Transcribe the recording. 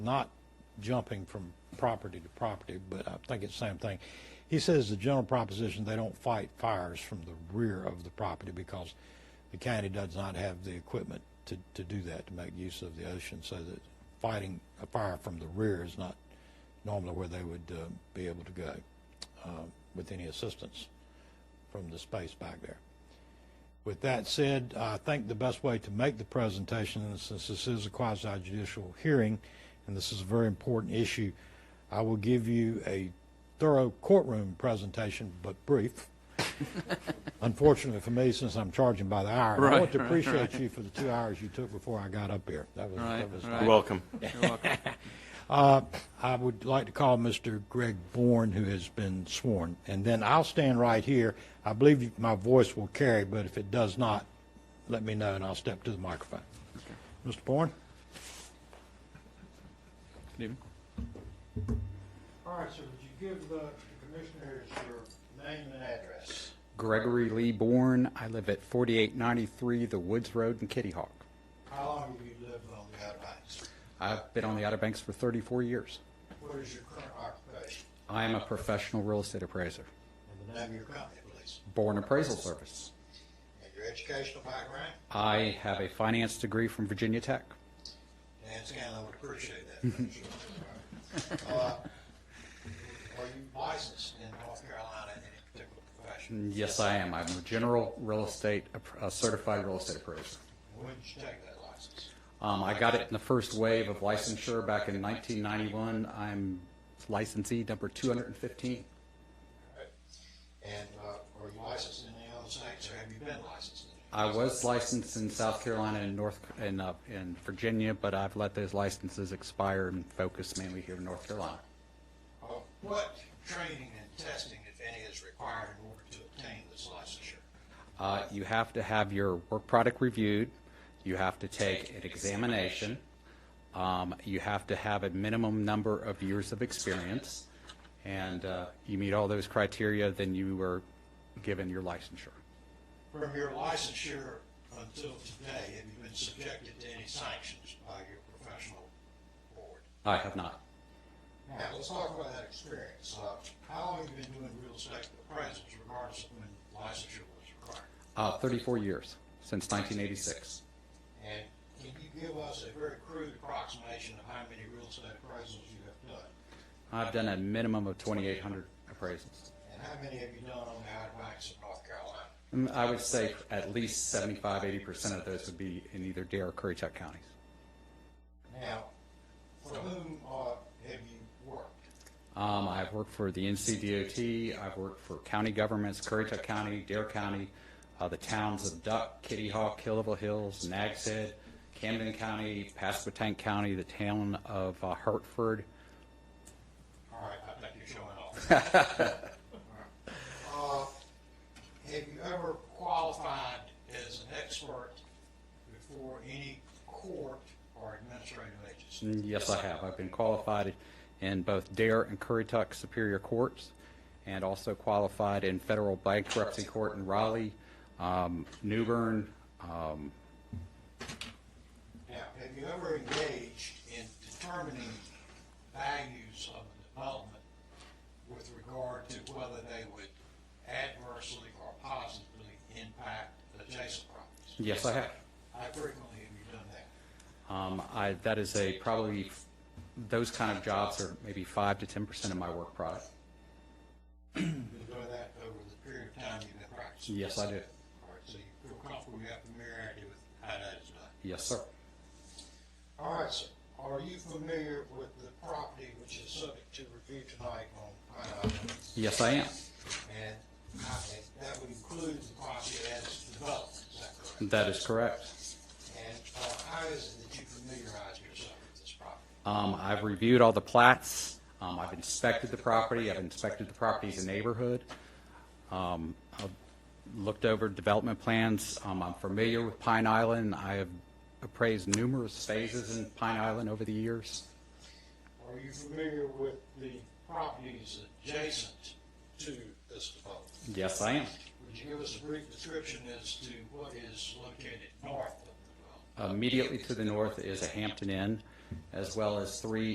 not jumping from property to property, but I think it's the same thing. He says the general proposition, they don't fight fires from the rear of the property because the county does not have the equipment to, to do that, to make use of the ocean, so that fighting a fire from the rear is not normally where they would uh, be able to go uh, with any assistance from the space back there. With that said, I think the best way to make the presentation, and since this is a quasi judicial hearing, and this is a very important issue, I will give you a thorough courtroom presentation, but brief. Unfortunately for me, since I'm charging by the hour, and I want to Right, right, appreciate you for the two hours you took before I got up here. That was, Right, that was right. You're welcome. You're welcome. uh, I would like to call Mr. Greg Bourne, who has been sworn, and then I'll stand right here. I believe you- my voice will carry, but if it does not, let me know, and I'll step to the microphone. Mr. Bourne? Good evening. All right, so would you give uh, the commissioners your name and address? Gregory Lee Bourne. I live at 4893 The Woods Road in Kitty Hawk. How long have you lived on the Outer Banks? I've been on the Outer Banks for 34 years. What is your current occupation? I am a professional real estate appraiser, And the name of your company, please. Bourne Appraisal Service. And your educational background? I have a finance degree from Virginia Tech. Dan Scanlon would appreciate that. thank you. Uh, Are you licensed in North Carolina in any particular profession? And Yes, I am. I'm a general real estate, app- a certified real estate appraiser. When did you take that license? Um, I got it in the first wave of licensure back in 1991. I'm licensee number 215. And uh, are you licensed in any other states, or have you been licensed in any? I was licensed in South Carolina and North, and, uh, in Virginia, but I've let those licenses expire and focus mainly here in North Carolina. Uh, What training and testing, if any, is required in order to obtain this licensure? Uh, you have to have your work product reviewed, you have to take an examination, um, you have to have a minimum number of years of experience, and, uh, you meet all those criteria, then you were given your licensure. From your licensure until today, have you been subjected to any sanctions by your professional board? I have not. Now, let's talk about that experience. Uh, How long have you been doing real estate appraisals regardless of when licensure was required? Uh, thirty-four years, since nineteen eighty-six. And can you give us a very crude approximation of how many real estate appraisals you have done? I've done a minimum of twenty-eight hundred appraisals. And how many have you done on the Outer Banks of North Carolina? Mm, I would say at least 75, 80% of those would be in either Dare or Currituck counties. Now, for whom uh, have you worked? Um, I've worked for the NCDOT, I've worked for county governments, Currituck County, Dare County, uh, the towns of Duck, Kitty Hawk, Killable Hills, Nags Head, Camden County, Pasquotank County, the town of uh, Hartford. All right, I think you're showing off. All right. Uh, Have you ever qualified as an expert before any court or administrative agency? Mm, Yes, I have. I've been qualified in both Dare E and Currituck Superior Courts, and also qualified in Federal Bankruptcy Court in Raleigh, um, New Bern, um, Now, have you ever engaged in determining values of a development with regard to whether they would adversely or positively impact adjacent properties? Yes, I have. How frequently have you done that? Um, I, that is a probably, those kind of jobs are maybe 5 to 10% of my work product. You've been doing that over the period of time you've been practicing? Yes, I do. All right, so you feel comfortable you have familiarity with how that is done? Yes, sir. All right, sir, are you familiar with the property which is subject to review tonight on Pine Island? Yes, I am. And I think that would include the property as developed, is that correct? That is correct. Hmm. And uh, how is it that you familiarize yourself with this property? Um, I've reviewed all the plats. Um, I've inspected the property. I've inspected the property as a neighborhood. Um, I've looked over development plans. Um, I'm familiar with Pine Island. I have appraised numerous phases in Pine Island over the years. Are you familiar with the properties adjacent to this development? Yes, I am. Would you give us a brief description as to what is located north of the dwelling? Immediately to the north is a Hampton Inn, as well as three